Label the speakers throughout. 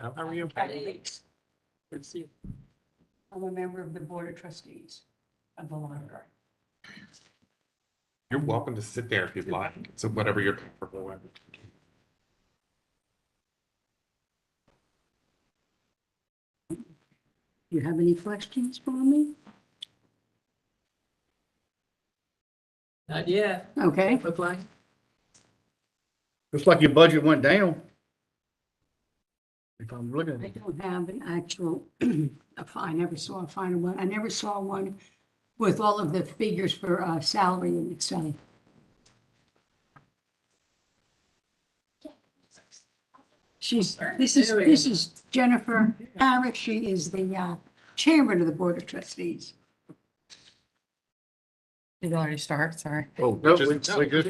Speaker 1: How how are you? Good to see you.
Speaker 2: I'm a member of the Board of Trustees of the library.
Speaker 1: You're welcome to sit there if you'd like. So whatever you're comfortable with.
Speaker 2: You have any questions for me?
Speaker 3: Not yet,
Speaker 2: Okay,
Speaker 3: look like.
Speaker 4: Looks like your budget went down. If I'm looking at
Speaker 2: I
Speaker 4: it.
Speaker 2: don't have an actual, a fi- I never saw a final one. I never saw one with all of the figures for uh, salary and Excel. She's, this is, this is Jennifer Harris. She is the uh, chairman of the Board of Trustees.
Speaker 5: Did already start, sorry.
Speaker 1: Oh,
Speaker 4: No,
Speaker 1: just-
Speaker 4: we-
Speaker 1: no,
Speaker 4: we good.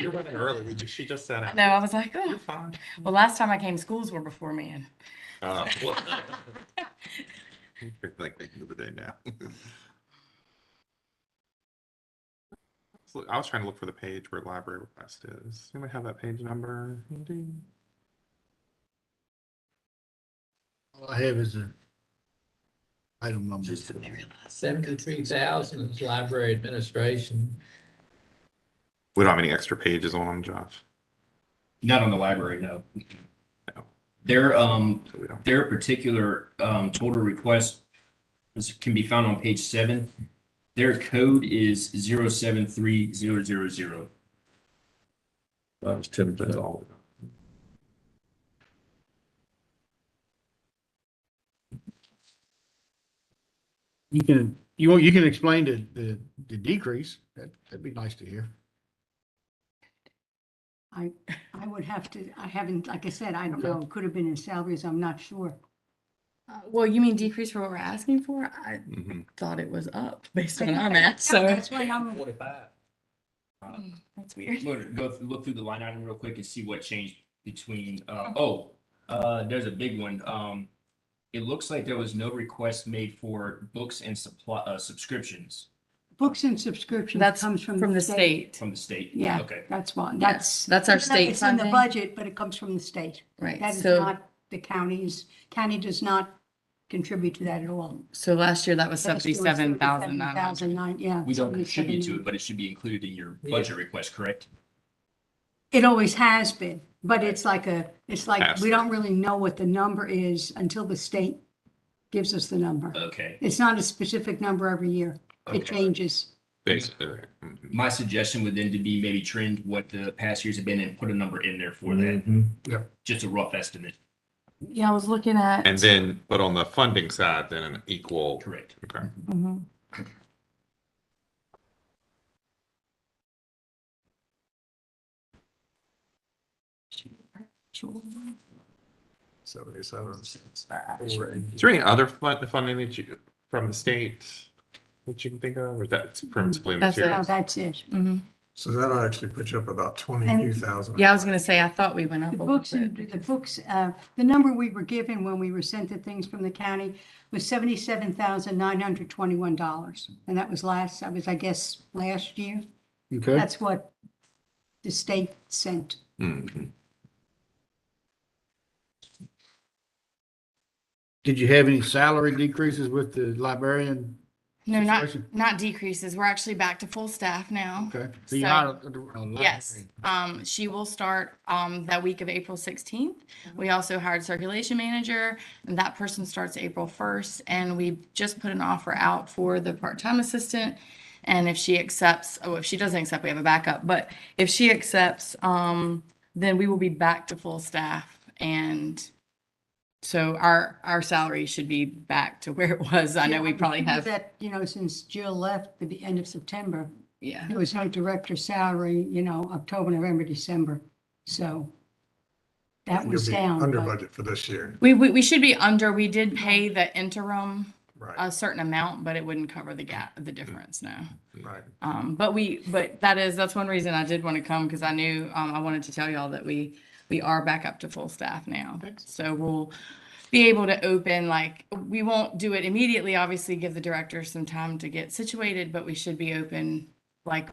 Speaker 1: You're running early. We just, she just sat out.
Speaker 5: No, I was like, oh,
Speaker 1: You're fine.
Speaker 5: well, last time I came, schools were before me and
Speaker 1: Uh, well,
Speaker 6: Like they do today now.
Speaker 1: I was trying to look for the page where library request is. You might have that page number. Ding.
Speaker 4: All I have is a item number.
Speaker 3: Seventy-three thousand is library administration.
Speaker 1: We don't have any extra pages on them, Josh.
Speaker 7: Not on the library, no.
Speaker 1: No.
Speaker 7: Their, um,
Speaker 1: So we don't.
Speaker 7: their particular, um, total request is, can be found on page seven. Their code is zero seven three zero zero zero.
Speaker 1: That was ten percent all.
Speaker 4: You can, you want, you can explain the, the, the decrease. That, that'd be nice to hear.
Speaker 2: I, I would have to, I haven't, like I said, I don't know. It Could have been in salaries. I'm not sure.
Speaker 5: Uh, Well, you mean decrease for what we're asking for? I
Speaker 1: Mhm.
Speaker 5: thought it was up based on our math, so
Speaker 2: That's why I'm,
Speaker 3: Forty-five.
Speaker 5: that's weird.
Speaker 7: Look, go, th- look through the line item real quick and see what changed between, uh, oh, uh, there's a big one. Um, it looks like there was no request made for books and supply, uh, subscriptions
Speaker 2: books and subscriptions
Speaker 5: That's
Speaker 2: comes from.
Speaker 5: From the state,
Speaker 7: from the state.
Speaker 2: Yeah.
Speaker 7: Okay.
Speaker 2: That's one,
Speaker 5: Yes,
Speaker 2: that's.
Speaker 5: that's our
Speaker 2: even though
Speaker 5: state
Speaker 2: It's in the
Speaker 5: funding.
Speaker 2: budget, but it comes from the state.
Speaker 5: right?
Speaker 2: That is
Speaker 5: So,
Speaker 2: not the county's, county does not contribute to that at all.
Speaker 5: so last year that was
Speaker 2: Last year was
Speaker 5: seventy-seven thousand nine hundred.
Speaker 2: 77,900, yeah.
Speaker 7: We don't
Speaker 2: 77,900.
Speaker 7: contribute to it, but it should be included in your budget request, correct?
Speaker 2: It always has been, but it's like a, it's like, we
Speaker 1: Pass-through.
Speaker 2: don't really know what the number is until the state gives us the number.
Speaker 7: Okay.
Speaker 2: It's not a specific number every year. It
Speaker 7: Uh, Okay.
Speaker 2: changes.
Speaker 1: Basically. Mhm.
Speaker 7: My suggestion would then to be maybe trend what the past years have been and put a number in there for
Speaker 3: Mm-hmm.
Speaker 7: that.
Speaker 4: Yeah.
Speaker 7: Just a rough estimate,
Speaker 5: Yeah, I was looking at.
Speaker 1: And then, but on the funding side, then an equal.
Speaker 7: correct?
Speaker 1: Okay.
Speaker 5: Mhm.
Speaker 1: Seventy-seven. Is there any other fun- funding that you, from the state that you can think of, or that's principally
Speaker 5: That's it.
Speaker 2: Now,
Speaker 1: materials?
Speaker 2: that's it.
Speaker 5: Mhm.
Speaker 8: So that actually puts you up about twenty-two thousand.
Speaker 5: Yeah, I was gonna say, I thought we went up
Speaker 2: The
Speaker 5: a little
Speaker 2: books, and-
Speaker 5: bit.
Speaker 2: the books, uh, the number we were given when we were sent the things from the county was seventy-seven thousand nine hundred twenty-one dollars. And that was last, that was, I guess, last year.
Speaker 4: Okay.
Speaker 2: That's what the state sent.
Speaker 1: Mhm.
Speaker 4: Did you have any salary decreases with the librarian?
Speaker 5: No, not,
Speaker 4: situation?
Speaker 5: not decreases. We're actually back to full staff now.
Speaker 4: Okay. So you're
Speaker 5: So-
Speaker 4: not. a- a- a
Speaker 5: Yes,
Speaker 4: librarian.
Speaker 5: um, she will start, um, that week of April sixteenth. We
Speaker 4: Mm-hmm.
Speaker 5: also hired circulation manager, and that person starts April first, and we just put an offer out for the part-time assistant. And if she accepts, oh, if she doesn't accept, we have a backup, but if she accepts, um, then we will be back to full staff and so our, our salary should be back to where it was. I know we probably have,
Speaker 2: That, you know, since Jill left at the end of September,
Speaker 5: yeah.
Speaker 2: it was her director salary, you know, October, November, December. So that was down.
Speaker 8: Under
Speaker 2: but-
Speaker 8: budget for this year,
Speaker 5: We, we, we should be under, we did pay the interim
Speaker 8: right,
Speaker 5: a certain amount, but it wouldn't cover the gap, the difference, no.
Speaker 8: right.
Speaker 5: Um, but we, but that is, that's one reason I did want to come, because I knew, um, I wanted to tell y'all that we, we are back up to full staff now. So we'll be able to open, like, we won't do it immediately, obviously give the director some time to get situated, but we should be open, like,